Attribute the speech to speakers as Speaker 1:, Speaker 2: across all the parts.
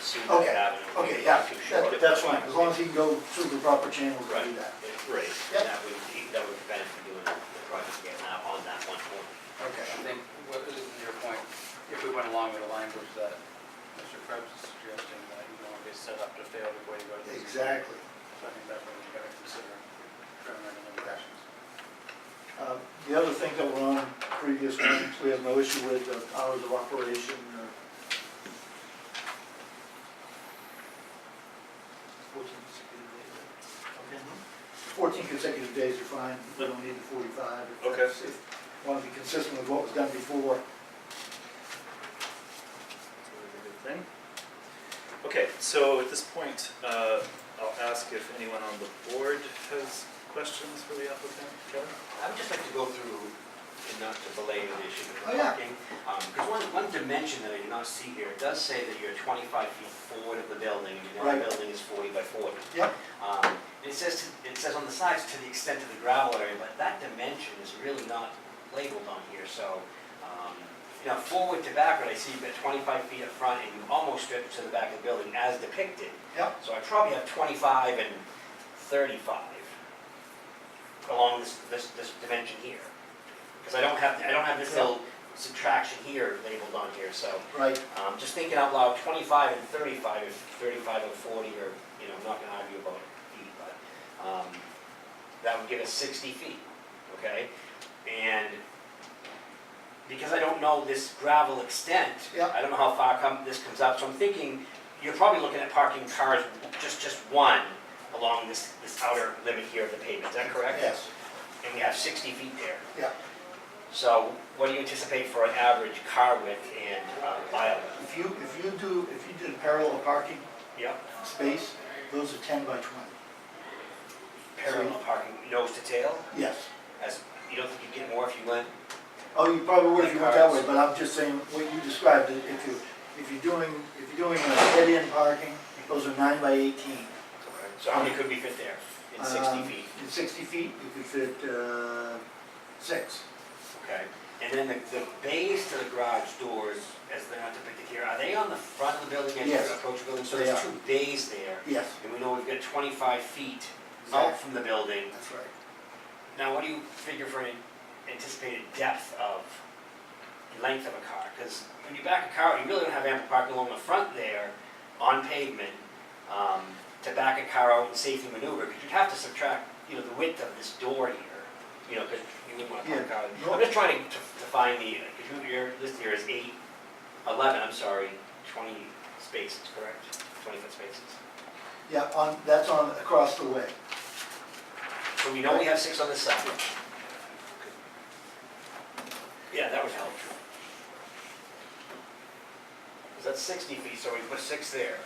Speaker 1: see that
Speaker 2: Okay,
Speaker 1: avenue.
Speaker 2: okay, yeah,
Speaker 1: Too short.
Speaker 2: that- that's fine, as long as he can go through the proper channels to do
Speaker 1: Right,
Speaker 2: that.
Speaker 1: right,
Speaker 2: Yep.
Speaker 1: that would, that would prevent him from doing the project again now on that one corner.
Speaker 2: Okay.
Speaker 3: I think, what is your point, if we went along with the language that Mr. Krebs is suggesting, that you don't want to be set up to fail before you go to the ZBA.
Speaker 2: Exactly.
Speaker 3: So I think that's what we've got to consider, determining the limitations.
Speaker 2: Uh, The other thing that were on previous ones, we have no issue with uh, hours of operation. uh, Fourteen consecutive days. Okay. Fourteen consecutive days are fine, we don't need the forty-five. If
Speaker 4: Okay.
Speaker 2: that's- if you Want to be consistent with what was done before.
Speaker 4: Thing. Okay, so at this point, uh, I'll ask if anyone on the board has questions for the applicant. Kevin?
Speaker 1: I would just like to go through, and not to belay the issue of
Speaker 2: Oh,
Speaker 1: the
Speaker 2: yeah.
Speaker 1: parking. Because one, one dimension that I did not see here, it does say that you're 25 feet forward of the building, and your
Speaker 2: Right.
Speaker 1: building is 40 by 40.
Speaker 2: Yep.
Speaker 1: Um, and It says, to- it says on the sides to the extent of the gravel area, but that dimension is really not labeled on here, so, um, you know, forward to backward, I see you've got 25 feet up front, and you almost strip to the back of the building as depicted.
Speaker 2: Yep.
Speaker 1: So I probably have 25 and 35 along this, this, this dimension here. Because I don't have, I don't have this little subtraction here labeled on here, so,
Speaker 2: Right,
Speaker 1: um, just thinking out loud, 25 and 35, if 35 and 40 are, you know, I'm not gonna argue about feet, but, um, that would give us 60 feet, okay? And because I don't know this gravel extent,
Speaker 2: Yeah.
Speaker 1: I don't know how far come, this comes up, so I'm thinking, you're probably looking at parking cars, just, just one along this, this outer limit here of the pavement, is that correct?
Speaker 2: yes,
Speaker 1: And we have 60 feet there.
Speaker 2: yeah.
Speaker 1: So what do you anticipate for an average car width and uh, aisle width?
Speaker 2: If you, if you do, if you did a parallel parking
Speaker 1: Yep.
Speaker 2: space, those are ten by twenty.
Speaker 1: parallel parking nose to tail,
Speaker 2: Yes.
Speaker 1: as, you don't think you'd get more if you went?
Speaker 2: Oh, you probably would if you went that way, but I'm just saying, what you described, if you, if you're doing, if you're doing a dead-end parking, those are nine by eighteen.
Speaker 1: So how many could we fit there in sixty
Speaker 2: Um,
Speaker 1: feet?
Speaker 2: In sixty feet, you could fit, uh, six.
Speaker 1: Okay. And then the, the bays to the garage doors, as they're not depicted here, are they on the front of the building as you
Speaker 2: Yes.
Speaker 1: approach the building? So
Speaker 2: They
Speaker 1: there's
Speaker 2: are.
Speaker 1: two bays there,
Speaker 2: Yes,
Speaker 1: and we know we've got twenty-five feet out
Speaker 2: Exact.
Speaker 1: from the building.
Speaker 2: that's right.
Speaker 1: Now, what do you figure for an anticipated depth of, length of a car? Because when you back a car, you really don't have ample parking along the front there on pavement um, to back a car out and safely maneuver, because you'd have to subtract, you know, the width of this door here, you know, because you wouldn't want to park a car.
Speaker 2: Yeah, no.
Speaker 1: I'm just trying to, to find the, uh, because your list here is eight, 11, I'm sorry, 20 spaces, correct? 20 foot spaces.
Speaker 2: Yeah, on, that's on, across the way.
Speaker 1: So we know we have six on this side. Yeah, that would help. Because that's 60 feet, so we put six there.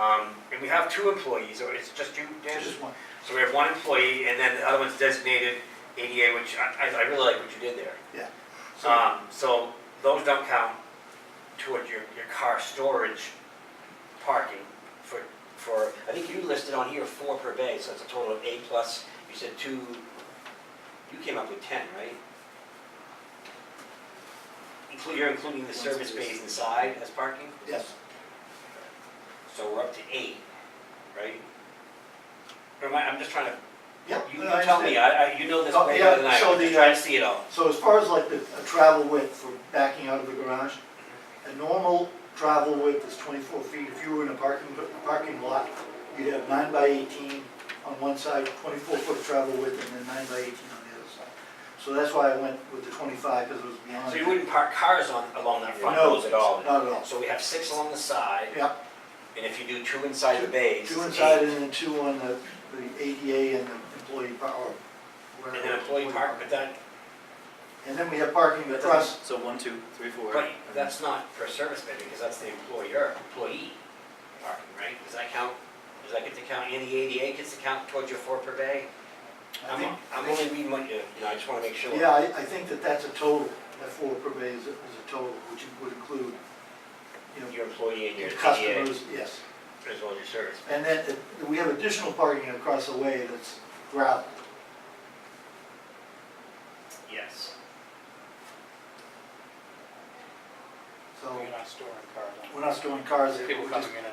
Speaker 1: Um, And we have two employees, or it's just you, Dan?
Speaker 2: Just one.
Speaker 1: So we have one employee, and then the other one's designated ADA, which I, I- I really like what you did there.
Speaker 2: Yeah. So,
Speaker 1: Um, So those don't count toward your, your car storage parking for, for, I think you listed on here four per bay, so it's a total of eight plus, you said two, you came up with 10, right? Inclu- You're including the service bays inside as parking?
Speaker 2: yes,
Speaker 1: So we're up to eight, right? Or am I, I'm just trying to,
Speaker 2: yeah.
Speaker 1: you
Speaker 2: no, I
Speaker 1: you tell me,
Speaker 2: understand.
Speaker 1: I, I- you know this
Speaker 2: Oh,
Speaker 1: way
Speaker 2: yeah,
Speaker 1: better than I,
Speaker 2: so
Speaker 1: I'm
Speaker 2: the,
Speaker 1: just trying to see it all.
Speaker 2: So as far as like the a travel width for backing out of the garage, a normal travel width is twenty-four feet. If you were in a parking, parking lot, you'd have nine by eighteen on one side, twenty-four foot travel width, and then nine by eighteen on the other side. So that's why I went with the twenty-five, because it was beyond.
Speaker 1: So you wouldn't park cars on, along that front
Speaker 2: uh, No,
Speaker 1: nose at all?
Speaker 2: Not at all.
Speaker 1: So we have six along the side,
Speaker 2: Yeah,
Speaker 1: and if you do two inside the bays,
Speaker 2: two
Speaker 1: it's
Speaker 2: inside
Speaker 1: eight.
Speaker 2: and then two on the, the ADA and the employee par- or
Speaker 1: And
Speaker 2: wherever.
Speaker 1: then employee park, but that,
Speaker 2: And then we have parking
Speaker 4: That
Speaker 2: across,
Speaker 4: doesn't- So one, two, three, four.
Speaker 1: right, that's not per service bay, because that's the employer, employee parking, right? Does that count, does that get to count, and the ADA gets to count towards your four per bay?
Speaker 2: I think.
Speaker 1: I'm, I'm only reading what you, you know, I just wanna make sure.
Speaker 2: Yeah, I, I think that that's a total, that four per bay is, a- is a total, which would include, you know,
Speaker 1: Your employee and your
Speaker 2: your
Speaker 1: ADA, as
Speaker 2: customers, yes.
Speaker 1: well as your service.
Speaker 2: And then, uh, we have additional parking across the way that's gravel.
Speaker 1: Yes.
Speaker 2: So,
Speaker 3: You're not storing cars on
Speaker 2: we're not storing cars there.
Speaker 3: people
Speaker 2: we're just-
Speaker 3: coming in and